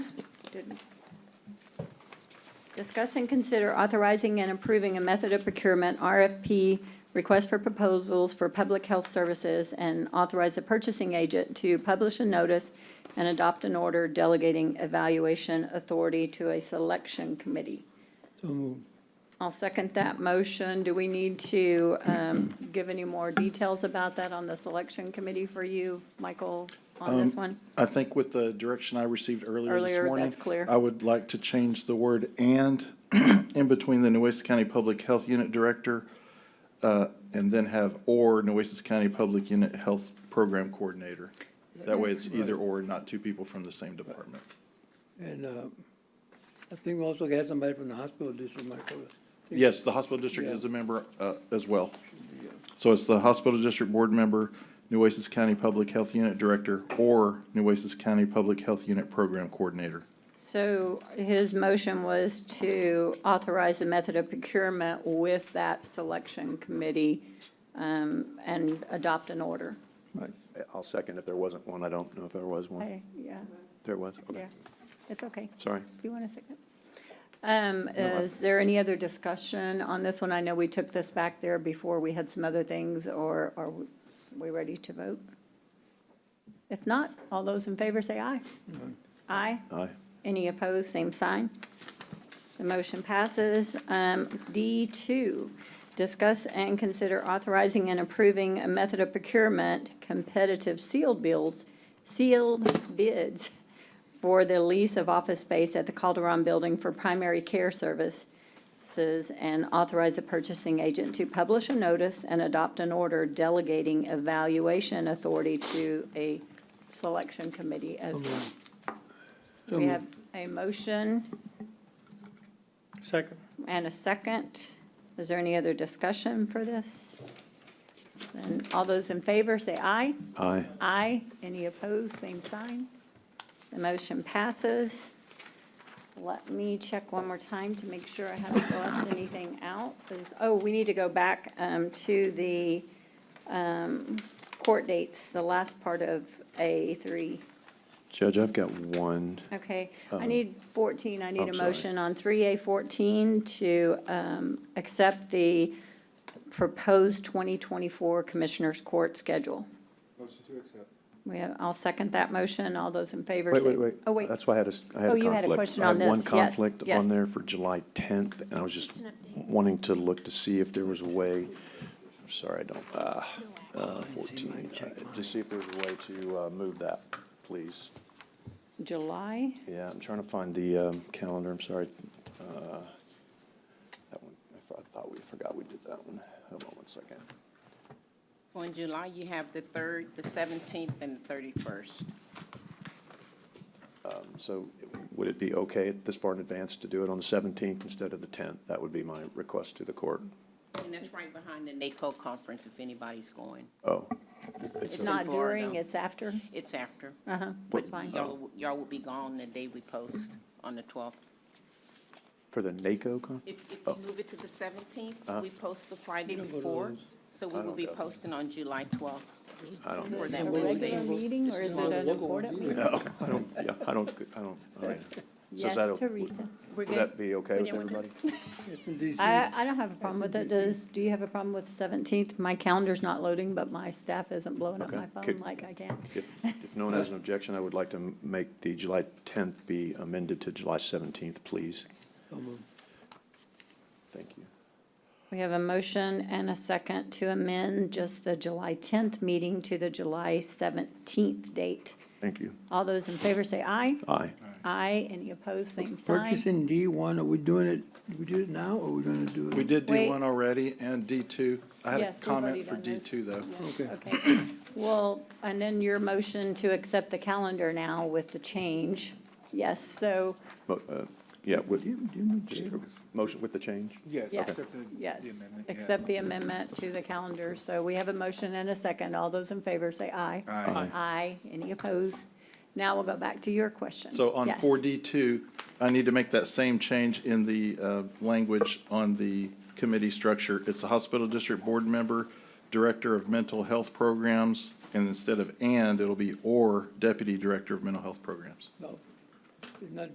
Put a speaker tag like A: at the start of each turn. A: didn't. Discuss and consider authorizing and approving a method of procurement, RFP, request for proposals for public health services, and authorize the purchasing agent to publish a notice and adopt an order delegating evaluation authority to a selection committee.
B: So moved.
A: I'll second that motion. Do we need to um, give any more details about that on the selection committee for you, Michael, on
B: Um,
A: this one?
C: I think with the direction I received earlier this
A: Earlier,
C: morning.
A: that's clear.
C: I would like to change the word "and" in between the Nueces County Public Health Unit Director, uh, and then have "or" Nueces County Public Unit Health Program Coordinator. That way it's either or, not two people from the same department.
B: And uh, I think we also had somebody from the hospital district, Michael.
C: Yes, the hospital district is a member uh, as well. So it's the hospital district board member, Nueces County Public Health Unit Director, or Nueces County Public Health Unit Program Coordinator.
A: So his motion was to authorize the method of procurement with that selection committee um, and adopt an order.
D: Right. I'll second if there wasn't one. I don't know if there was one.
A: Okay, yeah,
D: There was, okay.
A: yeah, it's okay.
D: Sorry.
A: Do you want a second? Um, Is there any other discussion on this one? I know we took this back there before we had some other things, or are we- we ready to vote? If not, all those in favor say aye. Aye.
D: Aye.
A: Any opposed, same sign. The motion passes. Um, D2, discuss and consider authorizing and approving a method of procurement, competitive sealed bills, sealed bids for the lease of office space at the Calderon Building for primary care services and authorize the purchasing agent to publish a notice and adopt an order delegating evaluation authority to a selection committee as well.
B: So
A: We
B: moved.
A: have a motion
E: Second.
A: and a second. Is there any other discussion for this? Then all those in favor, say aye.
D: Aye.
A: Aye. Any opposed, same sign. The motion passes. Let me check one more time to make sure I haven't left anything out. Is- Oh, we need to go back um, to the um, court dates, the last part of A3.
D: Judge, I've got one.
A: Okay, I
D: Um,
A: need 14, I need a
D: I'm sorry.
A: motion on 3A14 to um, accept the proposed 2024 Commissioners Court schedule. Motion to accept. We have, I'll second that motion, all those in favor.
D: Wait,
A: say-
D: wait, wait.
A: Oh, wait,
D: That's why I had a, s- I had a
A: Oh,
D: conflict.
A: you had a question on
D: I had one
A: this. Yes,
D: conflict
A: yes.
D: on there for July 10th, and I was just wanting to look to see if there was a way, I'm sorry, I don't, ah, uh, 14, uh, to see if there was a way to uh, move that, please.
A: July,
D: Yeah, I'm trying to find the um, calendar, I'm sorry. Uh, That one, I thought- I thought we forgot we did that one. Hold on one second.
F: Well, in July, you have the 3rd, the 17th, and the 31st.
D: So would it be okay at this far in advance to do it on the 17th instead of the 10th? That would be my request to the court.
F: And that's right behind the NACO conference if anybody's going.
D: Oh,
F: It's in
A: not during,
F: Florida.
A: it's after,
F: It's after.
A: uh-huh,
F: But
A: that's fine.
F: Y'all, will- y'all will be gone the day we post on the 12th.
D: for the NACO con?
F: If, if
A: Oh.
F: we move it to the
A: Uh-huh.
F: 17th, we post the Friday
B: don't go to
F: before,
B: those.
F: so
D: I
F: we will
D: don't
F: be
D: go.
F: posting on July 12th
D: I don't,
F: for
A: A
F: that Wednesday.
A: regular meeting, or is it an important meeting?
D: no, I don't, yeah, I don't, I don't, all right. So is
A: Yes,
D: that o-
A: Teresa. We're
D: Would
A: good.
D: that be okay with everybody?
B: It's in DC.
A: I, I don't have a problem with it. Does, do you have a problem with 17th? My calendar's not loading, but my staff isn't blowing up
D: Okay.
A: my phone
D: Could-
A: like I can.
D: If, if no one has an objection, I would like to m- make the July 10th be amended to July 17th, please.
B: So moved.
D: Thank you.
A: We have a motion and a second to amend just the July 10th meeting to the July 17th date.
D: Thank you.
A: All those in favor say aye.
D: Aye.
A: Aye. Any opposed, same sign.
B: Purchasing D one, are we doing it, did we do it now or are we gonna do it?
C: We did
A: Wait.
C: D1 already and D2. I had a
A: Yes, we've already
C: comment for
A: done those.
C: D2, though.
B: Okay.
A: Okay. Well, and then your motion to accept the calendar now with the change. Yes, so,
D: Mo- uh, Yeah, with,
B: Do you- do you need
D: just
B: to-
D: a motion with the change?
A: yes, yes. Accept the amendment to the calendar. So we have a motion and a second. All those in favor say aye.
D: Aye.
A: Aye. Any opposed? Now we'll go back to your question.
C: So on
A: Yes.
C: four D two, I need to make that same change in the uh, language on the committee structure. It's a hospital district board member, director of mental health programs, and instead of and, it'll be or deputy director of mental health programs.
B: No. It's not